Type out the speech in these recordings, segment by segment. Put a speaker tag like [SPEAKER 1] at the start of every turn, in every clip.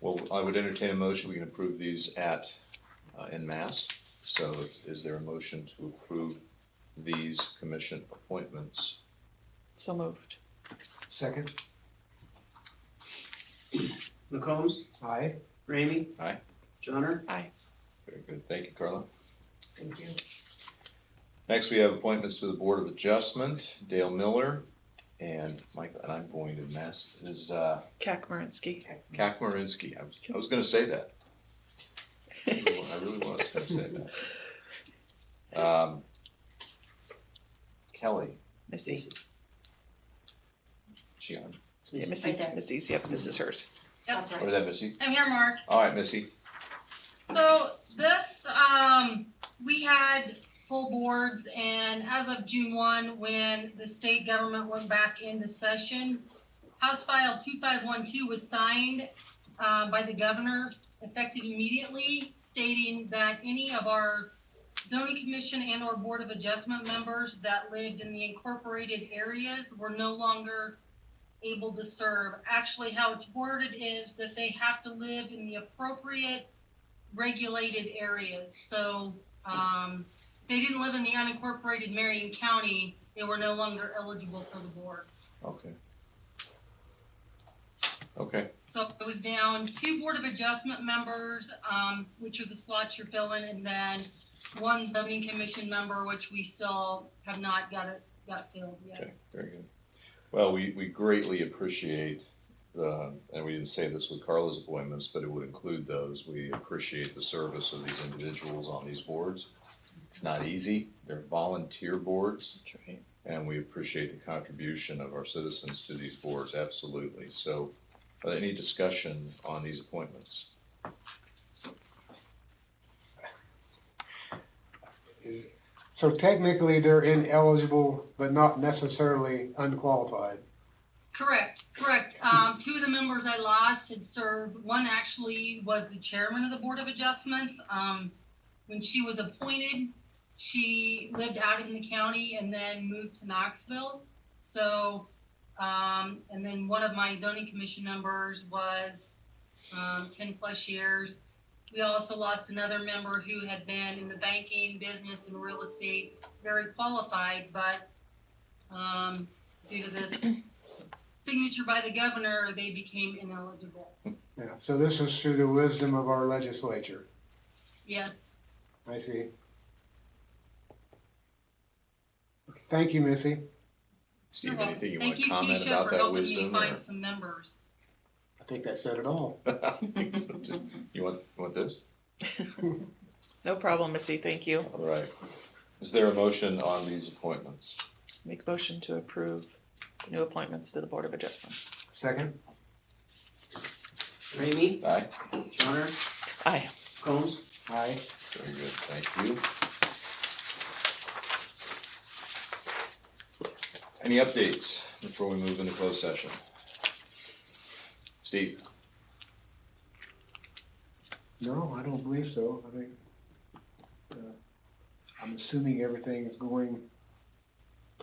[SPEAKER 1] Well, I would entertain a motion, we can approve these at, uh, en masse. So is there a motion to approve these commission appointments?
[SPEAKER 2] So moved.
[SPEAKER 3] Second,
[SPEAKER 4] McCombs?
[SPEAKER 3] aye.
[SPEAKER 4] Ramey?
[SPEAKER 1] Aye.
[SPEAKER 4] Johnner?
[SPEAKER 1] Very good, thank you, Carla.
[SPEAKER 3] Thank you.
[SPEAKER 1] Next, we have appointments to the Board of Adjustment, Dale Miller and Michael, and I'm going to mess, is, uh,
[SPEAKER 2] Kakmarinsky.
[SPEAKER 1] Kakmarinsky. I was, I was gonna say that. I really wa- I really was gonna say that. Um, Kelly,
[SPEAKER 2] Missy,
[SPEAKER 1] she on,
[SPEAKER 2] yeah,
[SPEAKER 5] Right
[SPEAKER 2] Missy's,
[SPEAKER 5] there. Mm-hmm.
[SPEAKER 2] Missy's, yep, this is hers.
[SPEAKER 5] Yep.
[SPEAKER 1] or is that Missy?
[SPEAKER 5] I'm here, Mark.
[SPEAKER 1] All right, Missy,
[SPEAKER 5] So this, um, we had full boards and as of June one, when the state government went back into session, House File two five one two was signed, uh, by the governor effective immediately stating that any of our zoning commission and or board of adjustment members that lived in the incorporated areas were no longer able to serve. Actually, how it's worded is that they have to live in the appropriate regulated areas, so, um, they didn't live in the unincorporated Marion County, they were no longer eligible for the boards.
[SPEAKER 1] okay. Okay,
[SPEAKER 5] So it was down two Board of Adjustment members, um, which are the slots you're filling, and then one zoning commission member, which we still have not got it, got filled yet.
[SPEAKER 1] okay, very good. Well, we, we greatly appreciate the, and we didn't say this with Carla's appointments, but it would include those. We appreciate the service of these individuals on these boards. It's not easy, they're volunteer boards.
[SPEAKER 2] That's right.
[SPEAKER 1] and we appreciate the contribution of our citizens to these boards, absolutely. So, uh, any discussion on these appointments?
[SPEAKER 3] So technically, they're ineligible, but not necessarily unqualified.
[SPEAKER 5] Correct, correct. Um, two of the members I lost had served, one actually was the chairman of the Board of Adjustments. Um, when she was appointed, she lived out in the county and then moved to Knoxville. So, um, and then one of my zoning commission members was, um, ten plus years. We also lost another member who had been in the banking business and real estate, very qualified, but, um, due to this signature by the governor, they became ineligible.
[SPEAKER 3] Yeah, so this is through the wisdom of our legislature.
[SPEAKER 5] Yes.
[SPEAKER 3] I see. Thank you, Missy.
[SPEAKER 5] you're
[SPEAKER 1] Steve,
[SPEAKER 5] welcome.
[SPEAKER 1] anything you want
[SPEAKER 5] Thank
[SPEAKER 1] to comment
[SPEAKER 5] Keisha,
[SPEAKER 1] about
[SPEAKER 5] for
[SPEAKER 1] that
[SPEAKER 5] helping me
[SPEAKER 1] wisdom? or-
[SPEAKER 5] Find some members.
[SPEAKER 3] I think that said it all.
[SPEAKER 1] I think so, too. You want, you want this?
[SPEAKER 2] No problem, Missy, thank you.
[SPEAKER 1] All right. Is there a motion on these appointments?
[SPEAKER 2] Make motion to approve new appointments to the Board of Adjustment.
[SPEAKER 3] Second,
[SPEAKER 4] Ramey?
[SPEAKER 1] Aye?
[SPEAKER 4] Johnner?
[SPEAKER 2] Aye.
[SPEAKER 4] McCombs?
[SPEAKER 3] aye.
[SPEAKER 1] Very good, thank you. Any updates before we move into closed session? Steve?
[SPEAKER 3] No, I don't believe so. I think, uh, I'm assuming everything is going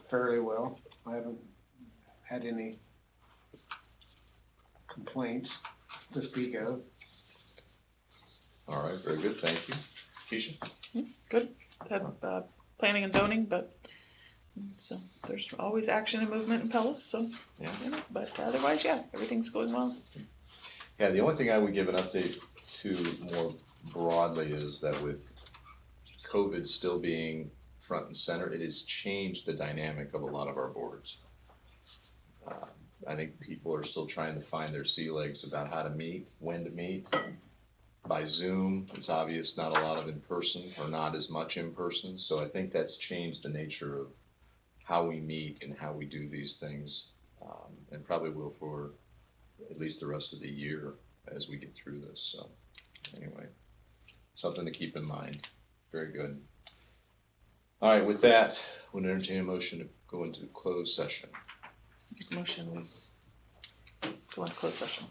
[SPEAKER 3] fairly well. I haven't had any complaints to speak of.
[SPEAKER 1] All right, very good, thank you. Keisha?
[SPEAKER 2] Had, uh, planning and zoning, but, mm, so there's always action and movement in Pella, so,
[SPEAKER 1] Yeah.
[SPEAKER 2] you know, but otherwise, yeah, everything's going well.
[SPEAKER 1] Yeah, the only thing I would give an update to more broadly is that with COVID still being front and center, it has changed the dynamic of a lot of our boards. Uh, I think people are still trying to find their sea legs about how to meet, when to meet. By Zoom, it's obvious not a lot of in person or not as much in person, so I think that's changed the nature of how we meet and how we do these things, um, and probably will for at least the rest of the year as we get through this. So, anyway, something to keep in mind. Very good. All right, with that, we'll entertain a motion to go into closed session.
[SPEAKER 2] Motion, we go into closed session.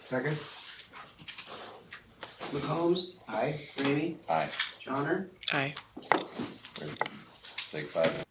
[SPEAKER 3] Second,
[SPEAKER 4] McCombs?
[SPEAKER 3] aye.
[SPEAKER 4] Ramey?
[SPEAKER 1] Aye.
[SPEAKER 4] Johnner?
[SPEAKER 2] Aye.
[SPEAKER 1] Very good. Take five.